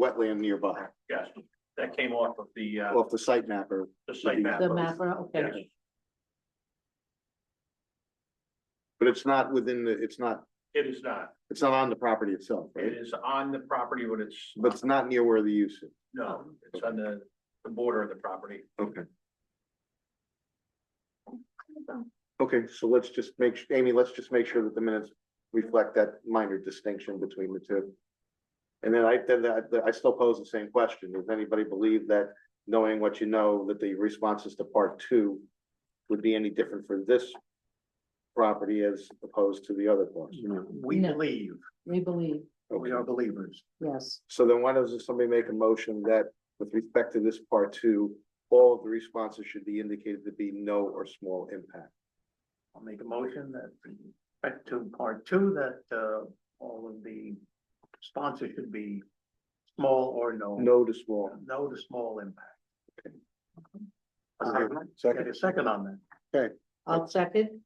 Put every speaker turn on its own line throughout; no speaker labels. wetland nearby,
Yes, that came off of the, uh,
off the site mapper.
the site map.
The mapper, okay.
Yes.
But it's not within the, it's not,
It is not.
it's not on the property itself,
It
right?
is on the property, but it's,
But it's not near where the use is.
no, it's on the, the border of the property.
Okay. Okay, so let's just make, su- Amy, let's just make sure that the minutes reflect that minor distinction between the two. And then I, then I, I still pose the same question. Does anybody believe that knowing what you know, that the responses to part two would be any different for this property as opposed to the other parts?
We
No.
believe,
We believe,
we are believers.
yes,
So then why doesn't somebody make a motion that with respect to this part two, all of the responses should be indicated to be no or small impact?
I'll make a motion that, in respect to part two, that, uh, all of the sponsors should be small or no.
No to small.
No to small impact.
Okay.
Second, Get
Uh, Second,
a second on that.
I'll second,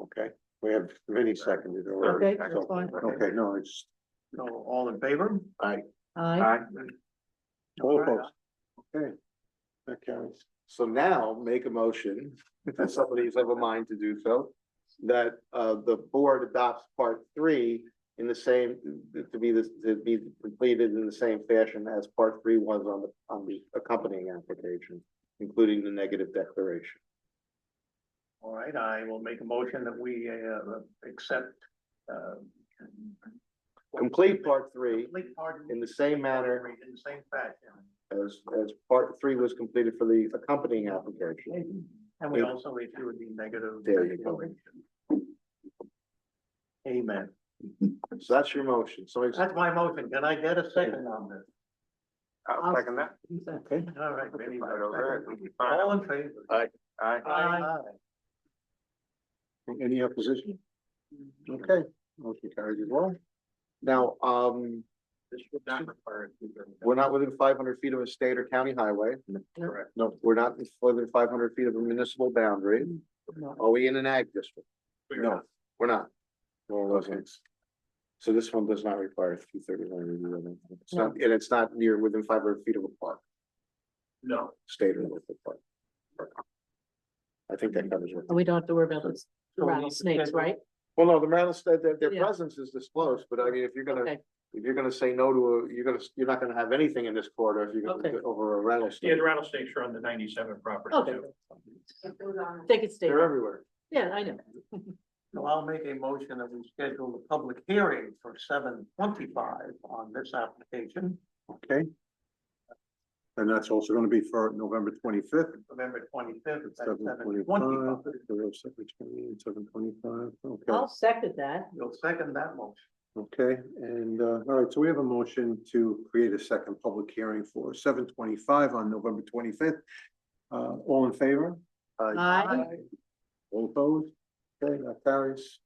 okay, we have many seconded or.
okay, that's fine,
Okay, no, it's,
So all in favor?
aye,
All opposed. okay. That carries. So now make a motion, if somebody's of a mind to do so, that uh the board adopts part three in the same, to be this, to be completed in the same fashion as part three was on the, on the accompanying application, including the negative declaration.
All right, I will make a motion that we, uh, accept, uh.
Complete part three
Complete part.
in the same manner
In the same fashion.
as, as part three was completed for the accompanying application.
And we also issue the negative.
There you go.
Amen.
So that's your motion, so.
That's my motion. Can I get a second on this?
I'll second that.
Okay.
All right. Vinny,
Right over it.
All in favor?
Aye. Aye.
Aye.
Any opposition? Okay, motion carries as well. Now, um,
This would not require.
we're not within five hundred feet of a state or county highway.
Correct.
No, we're not within five hundred feet of a municipal boundary.
no,
Are we in an ag district?
We're
No.
not.
We're not. Well, okay. So this one does not require two thirty-nine review. I don't think. It's not, and it's not near within five hundred feet of a park,
No,
state or local park. I think that covers it.
And we don't have to worry about those
So we need to
rattlesnakes,
schedule-
right?
Well, no, the rattlesnake, their, their
Yeah.
presence is disclosed, but I mean, if you're gonna,
Okay,
if you're gonna say no to a, you're gonna, you're not gonna have anything in this corridor if you're gonna
Okay.
go over a
yeah,
rattlesnake.
the rattlesnakes are on the ninety-seven property
Okay.
too.
take it state,
They're everywhere.
yeah, I know,
So I'll make a motion that we schedule the public hearing for seven twenty-five on this application,
Okay. And that's also gonna be for November twenty-fifth.
November twenty-fifth at
Seven
seven
twenty-five,
twenty-five.
seven twenty-five, okay,
I'll second that,
You'll second that motion.
okay, and, uh, all right, so we have a motion to create a second public hearing for seven twenty-five on November twenty-fifth. Uh, all in favor?
aye,
All opposed? Okay, that carries.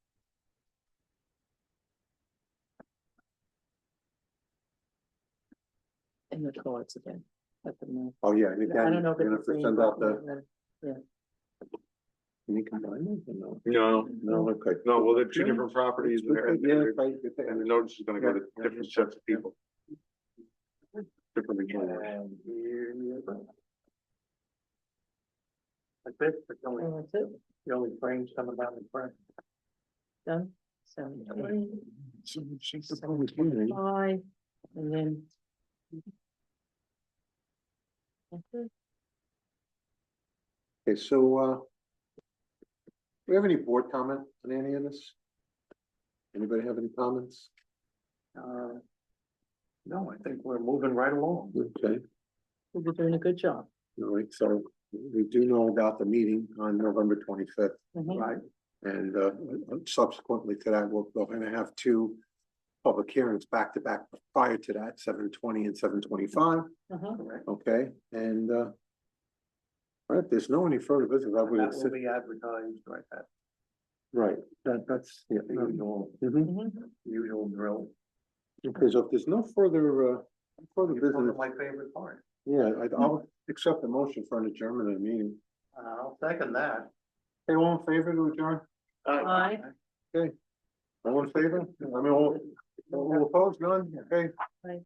and the cards again. Let them know.
Oh, yeah, and
I
again,
don't know
you're
if it's
gonna have to
the same
send out the,
button.
can you combine them? or No,
No,
no, okay.
no, well, they're two different properties
It's good
and they're-
that-
and
yeah,
they're-
right, good
and the
that-
notice is gonna go to
Yeah.
different sets of people. Different employers.
And here you go. Like this, but you only,
And that's it,
you only frame some of that in front.
done, seven twenty,
She's the public hearing.
five, and then. Okay.
Okay, so, uh, do we have any board comment on any of this? Anybody have any comments?
Uh, No, I think we're moving right along.
Okay,
You're doing a good job.
all right, so we do know about the meeting on November twenty-fifth,
Mhm.
Right.
and, uh, subsequently to that, we're, we're gonna have two public hearings back to back prior to that, seven twenty and seven twenty-five,
Uh-huh.
correct.
okay, and, uh, all right, there's no any further business, I
That
would,
will be advertised like that,
right, that, that's, yeah.
the usual,
Mhm.
Mhm.
usual drill.
Okay, so if there's no further, uh, further
It's one
business.
of my favorite part.
Yeah, I- I'll accept the motion for an adjournment of the meeting.
And Uh, I'll second that.
Hey, all in favor to adjourn?
Aye.
All in favor? I mean, all, all opposed, none? Okay.